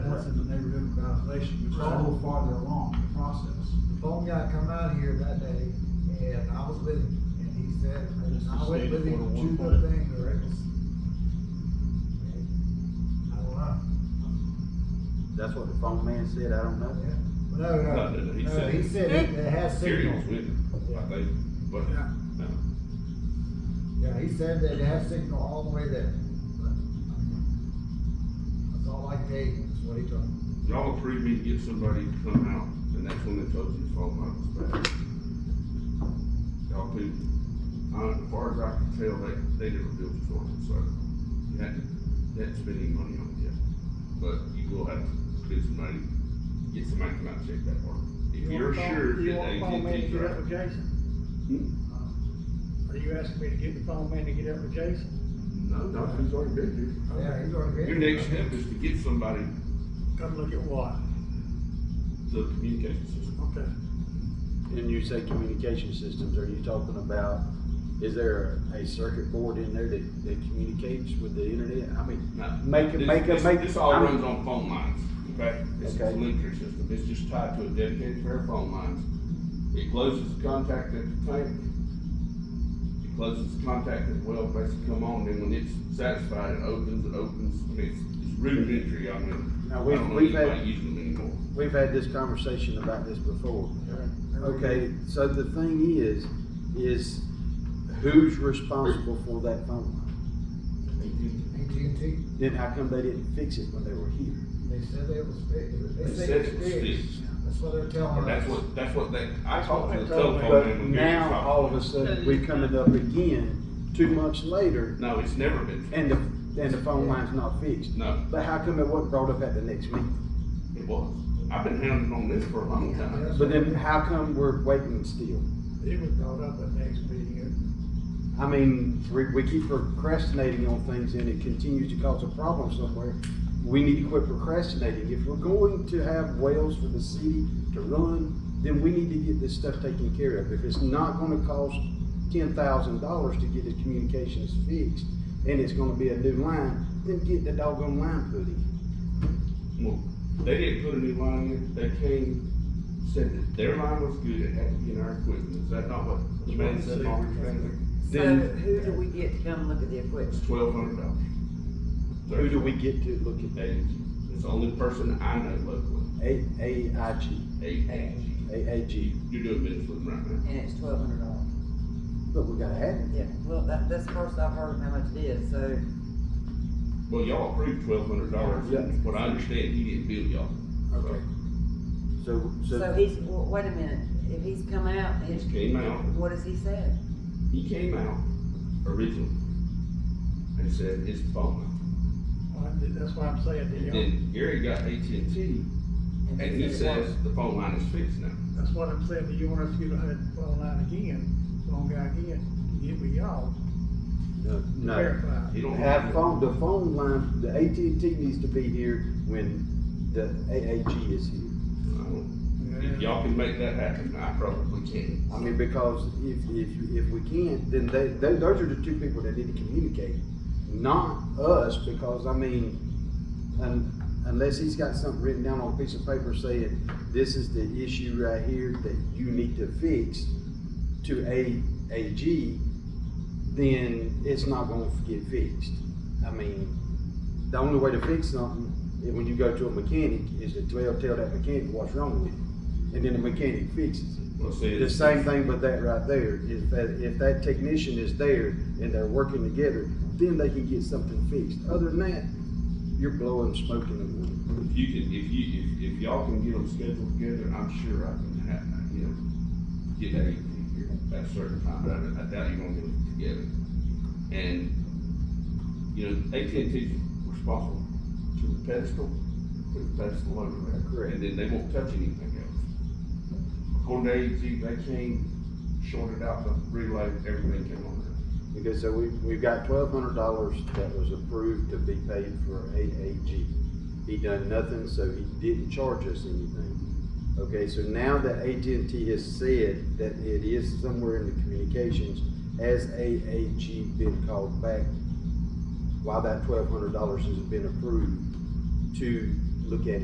situation, which is a little farther along in the process. The phone guy come out here that day, and I was with him, and he said, This is and I went with state him order to two one good point. things, or it was. I don't know, That's what the phone man said, I don't know. yeah, no, no, No, no, he no, said- he said it it has Gary signal. was with him, I think, but, uh, Yeah. no, Yeah, he said that it has signal all the way there, but, I mean, that's all I gave, him, is what he told me. y'all approved me to get somebody to come out, and that's when they told you the phone line was bad. Y'all too, uh, as far as I can tell, they, they never built the one, so you hadn't, you hadn't spent any money on it yet. But you will have to spend some money, get somebody to come out and check that part. If you're sure You that want the phone man to AT&T's get up right. with Jason? Are you asking me to get the phone man to get up with Jason? No, no, he's already been Yeah, he's already. here. Your gave next me- step is to get somebody Come look at what? the communication system. Okay. And you say communication systems, are you talking about, is there a circuit board in there that, that communicates with the internet? I mean, No, Make it- this- make it- this- make it- This all I'm- runs on phone lines, okay? It's a Okay. telemetry system, it's just tied to a dedicated pair of phone lines. It closes the contact at the tank. It closes the contact at the well, makes it come on, then when it's satisfied, it opens, it opens, I mean, it's, it's rudimentary, I mean, I Now, don't we've- know we've had- anybody using them anymore. we've had this conversation about this before. Everybody- Okay, so the thing is, is who's responsible for that phone line? AT&T, Then how come they didn't fix it when they were here? they said it was fixed, They they said said it it was was fixed, fixed. that's what they're Or telling that's us. what, that's what they, I talked to the But telephone man But when we were now, talking. all of a sudden, we are coming up again, two months later, No, it's never been, fixed. and the, and the phone line's not fixed. no, But how come it wasn't brought up at the next meeting? it was. I've been hounding on this for a long time. Yeah. But then how come we're waiting still? It was brought up at next meeting. I mean, we, we keep procrastinating on things and it continues to cause a problem somewhere. We need to quit procrastinating. If we're going to have wells for the city to run, then we need to get this stuff taken care of. If it's not gonna cost ten thousand dollars to get the communications fixed and it's gonna be a new line, then get the doggone line put in. Well, they didn't put a new line in, they came, said that their line was good, it had to be in our equipment, is that not what the man said, Marvin Van? So Then- who do we get to come look at the equipment? It's twelve hundred dollars. Who do we get to look at? Eight, it's the only person I know locally, A, AIG, eight, AAG. you're doing business with them right now. And it's twelve hundred dollars. But we gotta have it. Yeah, well, that, that's the first I've heard how much it is, so, Well, y'all approved twelve hundred dollars, Yeah. what I understand, he didn't bill y'all. Okay. So, so he's, well, wait a minute, if he's come out, he's. He's came out. What has he said? He came out originally and said it's the phone line. I- That's why I'm saying to And you, then Gary got AT&T and he said it says the phone line is fixed now. that's what I'm saying to you, want us to get ahead and phone line again, phone guy again, get with y'all, no, to no. verify. He don't. Have phone, the phone line, the AT&T needs to be here when the AAG is here. I don't- If Uh, y'all can make that happen, I probably can. I mean, because if, if, if we can't, then they, they, those are the two people that need to communicate, not us, because I mean, un unless he's got something written down on a piece of paper saying, this is the issue right here that you need to fix to A, AG, then it's not gonna get fixed. I mean, the only way to fix something, is when you go to a mechanic, is to tell, tell that mechanic what's wrong with it, and then the mechanic fixes it. Well, see, The it's- same thing with that right there, if that, if that technician is there and they're working together, then they can get something fixed. Other than that, you're blowing smoke in the wind. If you can, if you, if, if y'all can get them scheduled together, I'm sure I can have, you know, get that evening here at a certain time, but I, I doubt you're gonna get them together. And, you know, AT&T's responsible to the pedestal, put the pedestal over there. Correct. And then they won't touch anything else. According to AT&T, they came, shorted out the relay, everything came on there. Okay, so we, we've got twelve hundred dollars that was approved to be paid for AAG. He done nothing, so he didn't charge us anything. Okay, so now that AT&T has said that it is somewhere in the communications, has AAG been called back? Why that twelve hundred dollars has been approved to look at